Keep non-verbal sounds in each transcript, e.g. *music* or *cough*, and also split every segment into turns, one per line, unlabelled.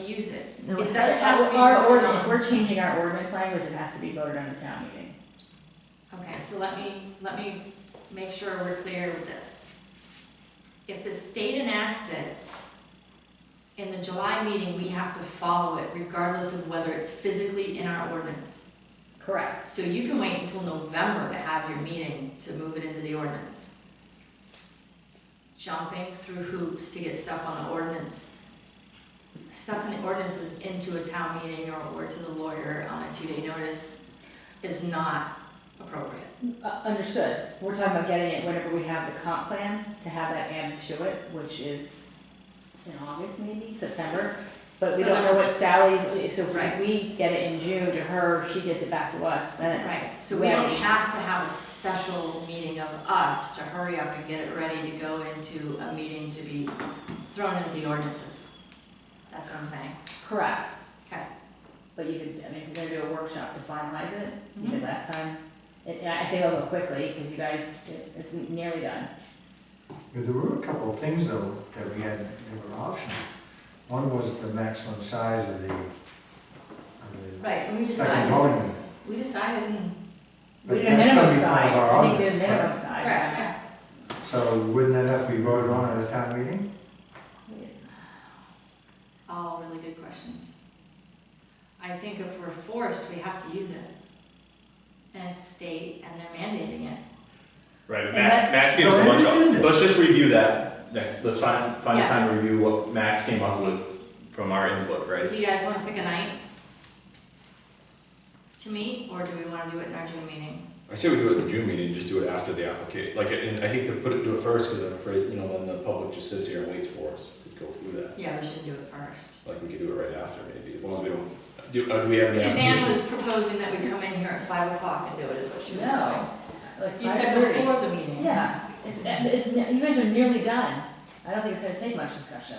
use it.
No,
It does have to be
Our
voted
ord-
on.
if we're changing our ordinance language, it has to be voted on at town meeting.
Okay, so let me, let me make sure we're clear with this. If the state enacts it, in the July meeting, we have to follow it regardless of whether it's physically in our ordinance.
Correct.
So you can wait until November to have your meeting to move it into the ordinance. Jumping through hoops to get stuff on the ordinance. Stuff in the ordinance is into a town meeting or, or to the lawyer on a two-day notice is not appropriate.
Uh, understood. We're talking about getting it whenever we have the comp plan, to have that added to it, which is in August maybe, September. But we
So
don't know
then-
what Sally's, so
Right.
if we get it in June to her, she gets it back to us, then it's.
Right, so we don't
ready.
have to have a special meeting of us to hurry up and get it ready to go into a meeting to be thrown into the ordinances. That's what I'm saying.
Correct.
Okay.
But you could, I mean, if you're gonna do a workshop to finalize it, you did
Mhm.
last time. It- And I think it'll go quickly, because you guys, it- it's nearly done.
Yeah, There were a couple of things though that we had, that were optional. One was the maximum size of the, of
Right, and we
the second
decided,
voting unit.
we decided and.
We
But
did a
that's gonna
minimum
be part
size,
of our
I think we did a
ordinance,
minimum
Right,
size.
yeah.
So wouldn't that have to be voted on at a town meeting?
All really good questions. I think if we're forced, we have to use it. And it's state and they're mandating it.
Right, but
And
Max,
that-
Max gave us
No,
a
I
bunch
understand
of,
this.
let's just review that, next, let's find, find a
Yeah.
time to review what Max came up with from our input, right?
Do you guys wanna pick a night? To meet, or do we wanna do it in our June meeting?
I say we do it in the June meeting, just do it after the application, like, and I hate to put it, do it first, cause I'm afraid, you know, then the public just sits here and waits for us to go through that.
Yeah, we should do it first.
Like, we could do it right after, maybe, as long as we don't, do, uh, do we have any
Suzanne
applications?
was proposing that we come in here at five o'clock and do it, is what she was
No.
doing.
Like
You said
5:30.
before the meeting.
Yeah, it's, it's, you guys are nearly done. I don't think it's gonna take much discussion.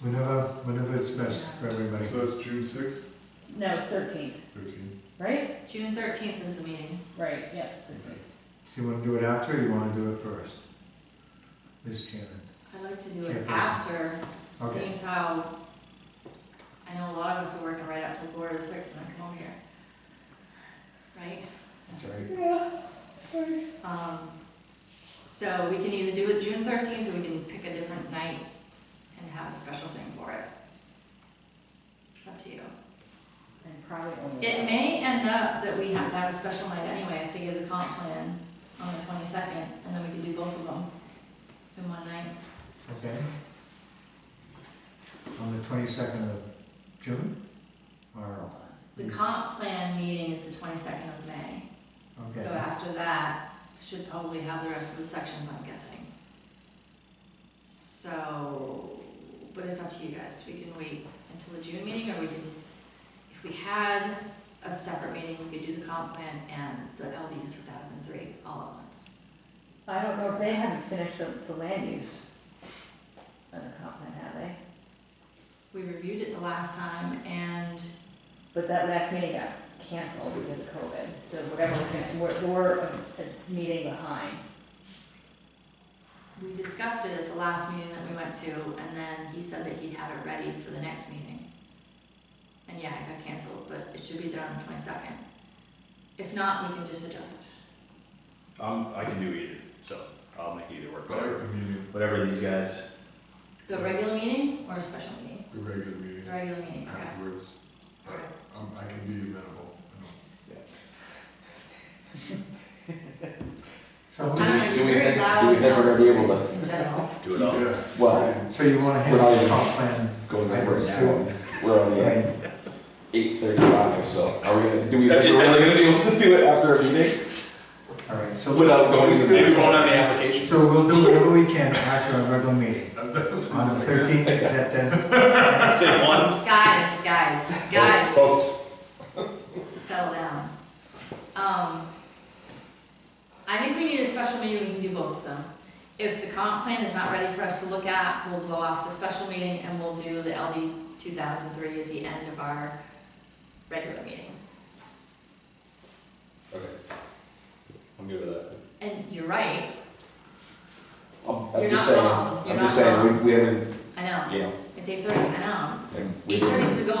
Whenever, whenever it's best for everybody.
So that's June sixth,
No, thirteenth,
thirteen.
right?
June thirteenth is the meeting.
Right, yeah, 13th.
So you wanna do it after or you wanna do it first? Ms. Chairman.
I'd like to do it
Chairperson.
after,
Okay.
seeing as how I know a lot of us are working right up till quarter to six and then come over here. Right?
That's right.
Um, So we can either do it June thirteenth, or we can pick a different night and have a special thing for it. It's up to you.
And probably only.
It may end up that we have to have a special night anyway, if they give the comp plan on the twenty-second, and then we can do both of them in one night.
Okay. On the twenty-second of June? Or,
The
Mm.
comp plan meeting is the twenty-second of May, so
okay,
after that, should probably have the rest of the sections, I'm guessing. So, but it's up to you guys, we can wait until the June meeting, or we can, if we had a separate meeting, we could do the comp plan and the LD two thousand three all at once.
I don't know, if they haven't finished the, the land use on the comp plan, have they?
We reviewed it the last time and
But that last meeting got canceled because of COVID, so whatever was, gonna- we're, we're a a meeting behind.
we discussed it at the last meeting that we went to, and then he said that he'd have it ready for the next meeting. And yeah, it got canceled, but it should be there on the twenty-second. If not, we can just adjust.
Um, I can do either, so I'll make either work,
I like
whatever,
the meeting,
whatever these guys.
The regular meeting or a special meeting?
the regular
The
meeting
regular meeting, okay.
afterwards. But um, I can be amenable.
so,
I
who's-
don't know,
Do
you're
we
very
think-
loud
do we
and
think we're gonna be able
loud In general.
Do
you
it
know.
all.
Yeah.
Well,
so you wanna
We're
handle
not
the
even-
comp plan
going backwards
backwards
now,
too?
we're only
I
at
mean,
eight thirty-five, so are we gonna, do we, think we're really gonna be able to do it after a meeting?
All right, so,
Without going to the
Maybe we
next
won't
one?
have any applications.
so we'll do whatever we can after our regular meeting. On the
On
thirteenth, is that then?
*laughs*
Say one.
Guys, guys, guys.
Folks,
settle down. Um, I think we need a special meeting, we can do both of them. If the comp plan is not ready for us to look at, we'll blow off the special meeting and we'll do the LD two thousand three at the end of our regular meeting.
Okay. I'm good with that.
And you're right,
I'm-
You're
I'm just
not
saying,
wrong. You're
I'm just
not
saying, we, we haven't,
I know,
you know,
it's eight thirty, I know,
and we
Eight
didn't-
thirty is the goal,